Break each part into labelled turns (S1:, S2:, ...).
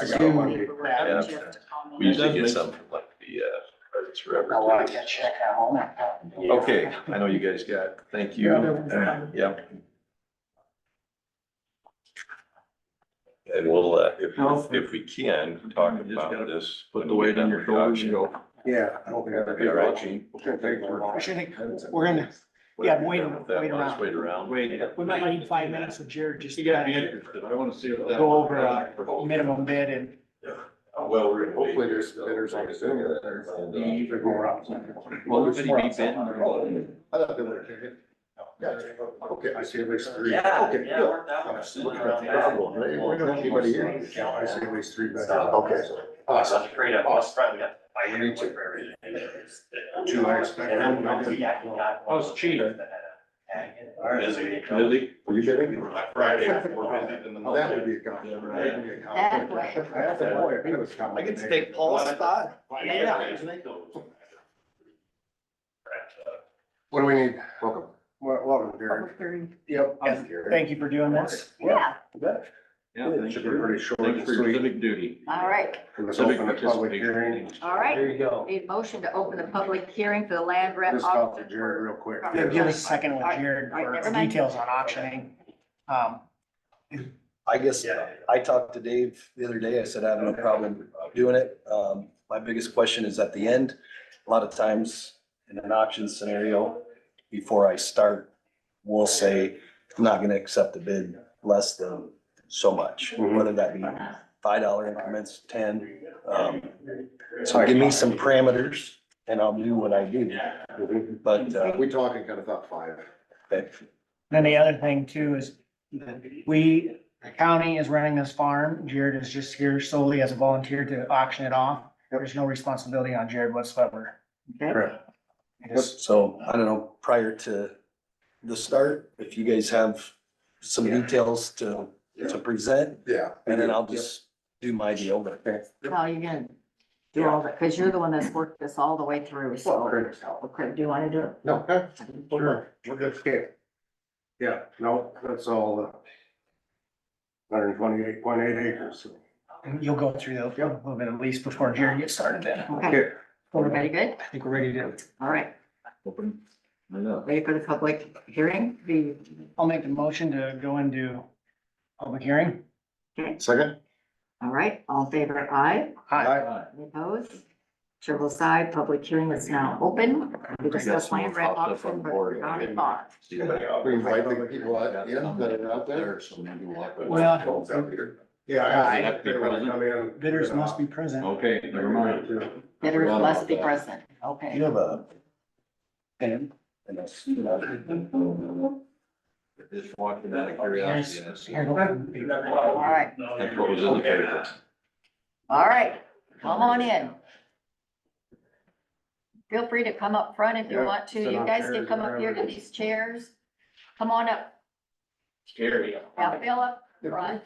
S1: I got
S2: Zoom.
S1: one.
S2: Yeah.
S3: We usually get some from like the, uh, Arts Forever.
S2: I wanna get check out home. and-
S3: Okay, I know you guys got, it. thank you.
S2: Yeah, that was fine.
S3: Yep. And we'll, uh, if, if we can, talk about this.
S4: Put the weight on your shoulders and go.
S1: Yeah. I don't think I'd
S3: That'd
S1: be
S3: be all right,
S1: right.
S3: Gene.
S2: I should think, we're gonna, Yeah, wait-
S3: With that,
S2: wait
S3: let's
S2: around.
S3: Wait around.
S4: Wait.
S2: we might need five minutes with Jared just to
S4: You got me
S2: kinda
S4: interested. I wanna see. what that-
S2: go over uh, a minimum bid and
S3: Uh, Well, we're.
S1: Hopefully there's bidders on Zoom.
S3: And, uh,
S1: Either go around.
S4: Will everybody be bidding
S1: I thought they would have. Yeah, okay, I see at least three.
S5: Yeah,
S1: Okay,
S5: yeah,
S1: good.
S5: worked out.
S1: Yeah, so look at that problem, right? We don't have anybody here. Yeah, I see at least three. bidders. Okay. Awesome.
S5: Such a great, uh, best friend, yeah. I
S1: Me too.
S5: for everything.
S1: Do I expect-
S5: And I'm not- yeah, he got-
S4: Oh, it's cheap.
S5: Busy.
S4: Busy?
S1: Were you kidding?
S3: Friday, we're busy than the
S1: Well, That would be a compliment. That would be a compliment.
S6: That
S1: I have to boy, if he was coming.
S2: Paul's spot. Yeah.
S1: What do we need? Welcome. Well, welcome, Derek.
S6: Public hearing.
S1: Yep.
S2: I'm um, Thank you for doing this.
S6: Yeah,
S4: Yeah,
S1: It
S4: thank
S1: should be
S4: you.
S1: pretty short
S4: Thanks
S1: and
S4: for your
S1: sweet.
S4: civic duty.
S6: all right,
S1: It was
S4: Civic
S1: open to public hearing.
S4: participation.
S6: all right.
S2: you go.
S6: Need a motion to open the public hearing for the land rep.
S1: Just talk to Jared real quick.
S2: Yeah, give us a second with Jared
S6: All right,
S2: for
S6: never mind.
S2: details on auctioning. Um,
S7: I guess,
S5: Yeah.
S7: I talked to Dave the other day, I said I have no problem doing it. Um, my biggest question is at the end, a lot of times in an auction scenario, before I start, we'll say, I'm not gonna accept a bid less than so much,
S1: Mhm.
S7: whether that be five dollar increments, ten. Um, so give me some parameters and I'll do what I do,
S1: Mhm.
S7: but, uh,
S1: We talking kind of thought five.
S2: Then the other thing too is we, the county is running this farm. Jared is just here solely as a volunteer to auction it off. There's no responsibility on Jared whatsoever.
S1: Correct.
S2: Yes.
S7: So I don't know, prior to the start, if you guys have some
S1: Yeah.
S7: details to, to present,
S1: Yeah.
S7: and then I'll just do my deal, but
S6: No, Oh, you're gonna do all that, because you're the one that's worked this all the way through,
S1: Well,
S6: so.
S1: Craig's help.
S6: Okay, do you want to do it?
S1: No, okay, sure, we're good scale. Yeah, no, that's all. uh, Hundred and twenty-eight point eight acres.
S2: And You'll go through those a little bit at least before Jared gets started then.
S6: Okay,
S1: Okay,
S6: everybody good?
S2: I think we're ready to,
S6: All right,
S4: Open. I know.
S6: ready for the public hearing? The,
S2: I'll make the motion to go into public hearing.
S1: second?
S6: all right, all in favor, aye,
S2: Hi,
S6: Any opposed? Chair will side, public hearing is now open. We discuss land rep auction for the county farm.
S3: See you later.
S1: We invite the people out, yeah, that are out there.
S3: There, so maybe we'll have to-
S2: Well-
S1: Yeah.
S2: Aye.
S1: I- they wanna come in.
S2: bidders must be present.
S4: Okay, never mind.
S6: Bidders must be present, okay.
S7: you have a pen and a.
S4: Just walking out of curiosity.
S2: Yes.
S4: that's-
S2: Here, go ahead.
S5: All
S6: right.
S4: That's what was in the paper.
S6: All right, come on in. Feel free to come up front if you
S1: Yeah,
S6: want to.
S1: sit
S6: You
S1: on
S6: guys can
S1: chairs
S6: come
S1: or
S6: up here to
S1: whatever.
S6: these chairs. Come on up.
S4: Scary.
S6: Now, Phil up front.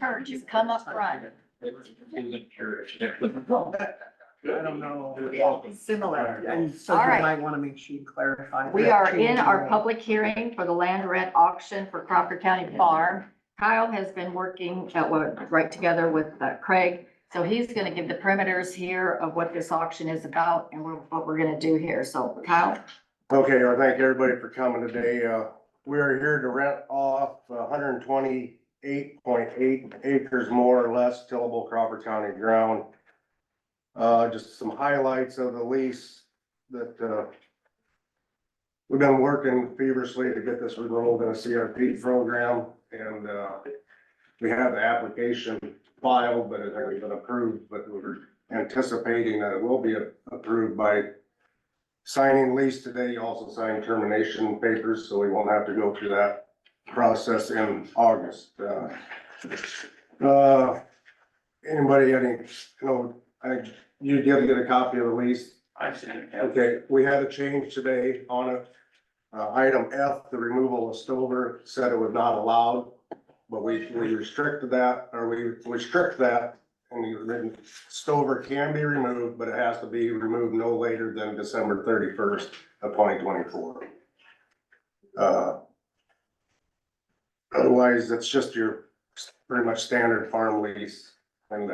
S6: Kurt, just come up front.
S2: I don't know.
S6: Similar.
S2: And so
S6: All
S2: you
S6: right.
S2: might want to make sure you clarify.
S6: We
S2: that
S6: are
S2: change
S6: in our
S2: the-
S6: public hearing for the land rent auction for Crocker County Farm. Kyle has been working, uh, well, right together with uh, Craig. So he's gonna give the perimeters here of what this auction is about and we're- what we're gonna do here. So Kyle?
S1: Okay, well, thank everybody for coming today. Uh, we are here to rent off hundred and twenty-eight point eight acres more or less tillable Crawford County ground. Uh, just some highlights of the lease that, uh, we've been working feverishly to get this enrolled in a CRP program and, uh, we have the application filed, but it hasn't been approved, but we're anticipating that it will be approved by signing lease today, you also sign termination papers, so we won't have to go through that process in August. Uh, uh, Anybody, got any, no, I, you did get a copy of the lease?
S5: I've seen it.
S1: Okay, we had a change today on it. Uh, item F, the removal of stover, said it was not allowed, but we, we restricted that, or we restrict that. And we written, stover can be removed, but it has to be removed no later than December thirty-first of twenty twenty-four. Uh. Otherwise, that's just your pretty much standard farm lease. And uh,